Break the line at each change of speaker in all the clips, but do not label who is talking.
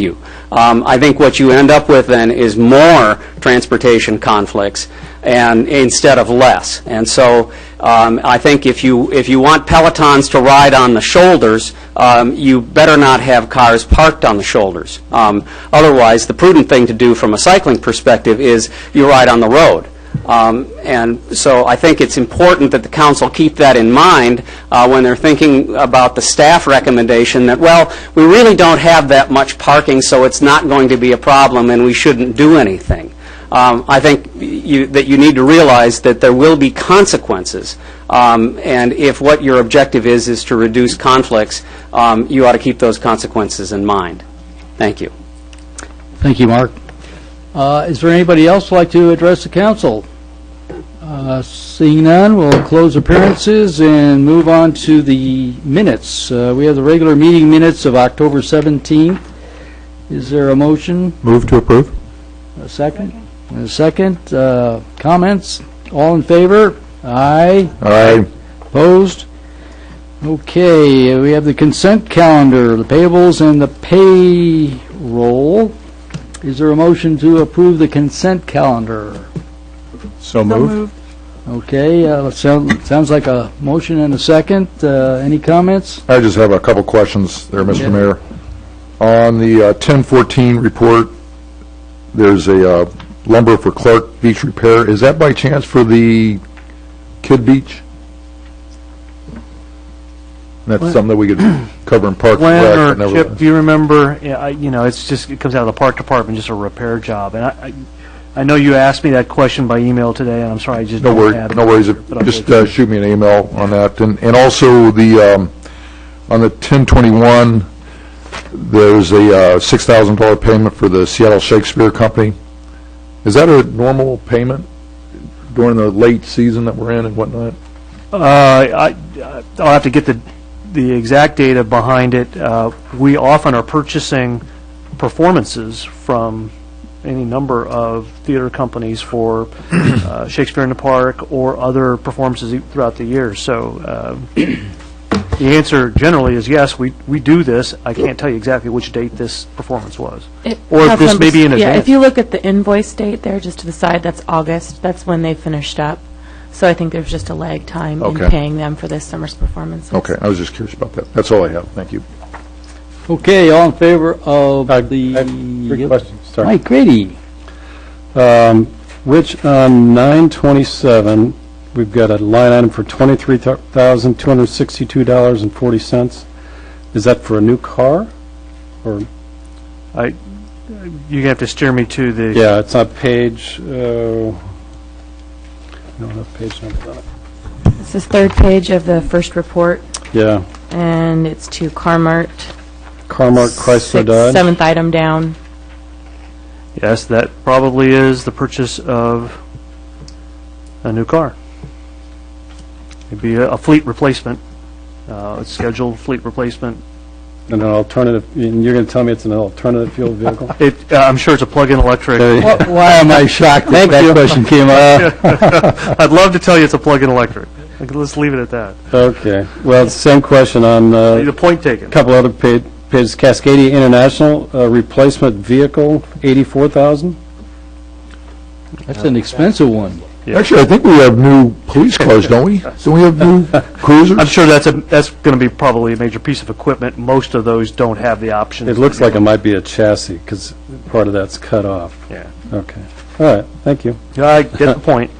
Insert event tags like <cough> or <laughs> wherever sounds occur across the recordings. you. Um, I think what you end up with then is more transportation conflicts and, instead of less. And so um, I think if you, if you want Pelotons to ride on the shoulders, um, you better not have cars parked on the shoulders. Um, Otherwise, the prudent thing to do from a cycling perspective is you ride on the road. Um, And so I think it's important that the council keep that in mind uh, when they're thinking about the staff recommendation that, well, we really don't have that much parking, so it's not going to be a problem and we shouldn't do anything. Um, I think you- that you need to realize that there will be consequences. Um, And if what your objective is, is to reduce conflicts, um, you ought to keep those consequences in mind. Thank you.
Thank you, Mark. Uh, Is there anybody else who'd like to address the council? Uh, Seeing none, we'll close appearances and move on to the minutes. Uh, We have the regular meeting minutes of October 17th. Is there a motion?
Move to approve?
A second? A second? Uh, Comments? All in favor? Aye.
Aye.
Opposed? Okay, we have the consent calendar, the payables and the payroll. Is there a motion to approve the consent calendar?
So moved?
Okay, uh, sound- sounds like a motion and a second. Uh, Any comments?
I just have a couple questions there,
Yeah.
Mr. Mayor. On the uh, 1014 report, there's a uh, lumber for Clark Beach repair. Is that by chance for the Kid Beach? And That's
What?
something that we could cover in Park and Rec. but
Glenn or
never-
Chip, do you remember, yeah, I- you know, it's just, it comes out of the park department, just a repair job. And I, I I know you asked me that question by email today, and I'm sorry, I just
No
don't
worries,
have it.
no worries.
but I'll
Just
get it.
uh, shoot me an email on that. And and also, the, um, on the 1021, there's a uh, $6,000 payment for the Seattle Shakespeare Company. Is that a normal payment during the late season that we're in and whatnot?
Uh, I, I- I'll have to get the, the exact data behind it. Uh, We often are purchasing performances from any number of theater companies for uh, Shakespeare in the Park or other performances e, throughout the year. So um, the answer generally is yes, we, we do this. I can't tell you exactly which date this performance was.
It-
Or if
half
this
numbers-
may be in
Yeah,
advance.
if you look at the invoice date there, just to the side, that's August. That's when they finished up. So I think there's just a lag time in
Okay.
paying them for this summer's performances.
Okay, I was just curious about that. That's all I have. Thank you.
Okay, all in favor of the...
Three questions, sorry.
Mike Grady.
Um, Rich, on 927, we've got a line item for $23,262.40. Is that for a new car? Or,
I, you have to steer me to the.
yeah, it's on page, uh, I don't have page numbers on it.
This is third page of the first report,
Yeah,
and it's to Carmart.
Carmark Chrysler
Sixth-
Dodge.
Seventh item down.
Yes, that probably is the purchase of a new car. It'd be a a fleet replacement, uh, a scheduled fleet replacement.
And an alternative, and you're going to tell me it's an alternative
<laughs>
fuel vehicle?
It, uh, I'm sure it's a plug-in electric.
Why am I shocked that that question came up?
I'd love to tell you it's a plug-in electric. Like, Let's leave it at that.
Okay, well, same question on, uh,
The point taken.
Couple other pa- pages, Cascadia International uh, Replacement Vehicle, 84,000?
That's an expensive one.
Actually, I think we have new police cars, don't
<laughs>
we? Don't we have new cruisers?
I'm sure that's, a that's going to be probably a major piece of equipment. Most of those don't have the option.
It looks like it might be a chassis, because part of that's cut off.
Yeah.
Okay, all right, thank you.
Yeah, I get the point.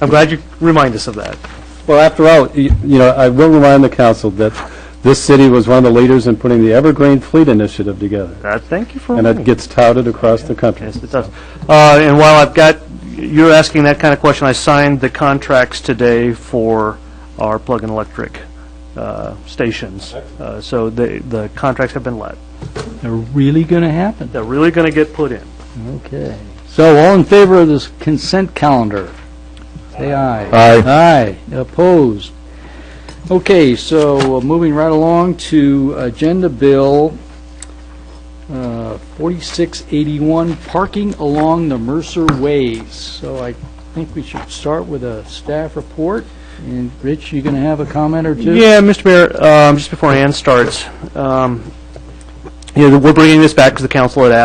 I'm glad you remind us of that.
Well, after all, y- you know, I will remind the council that this city was one of the leaders in putting the Evergreen Fleet Initiative together,
Uh, Thank you for
and
reminding
it
me.
gets touted across the country.
Yes, it does. Uh, And while I've got, you're asking that kind of question, I signed the contracts today for our plug-in electric uh, stations. Uh, So the the contracts have been let.
They're really going to happen.
They're really going to get put in.
Okay. So all in favor of this consent calendar? Say aye.
Aye.
Aye. Opposed? Okay, so uh, moving right along to Agenda Bill uh, 4681, parking along the Mercer Ways. So I think we should start with a staff report. And Rich, you going to have a comment or two?
Yeah, Mr. Mayor, um, just before Ann starts, um, you know, we're bringing this back because the council had asked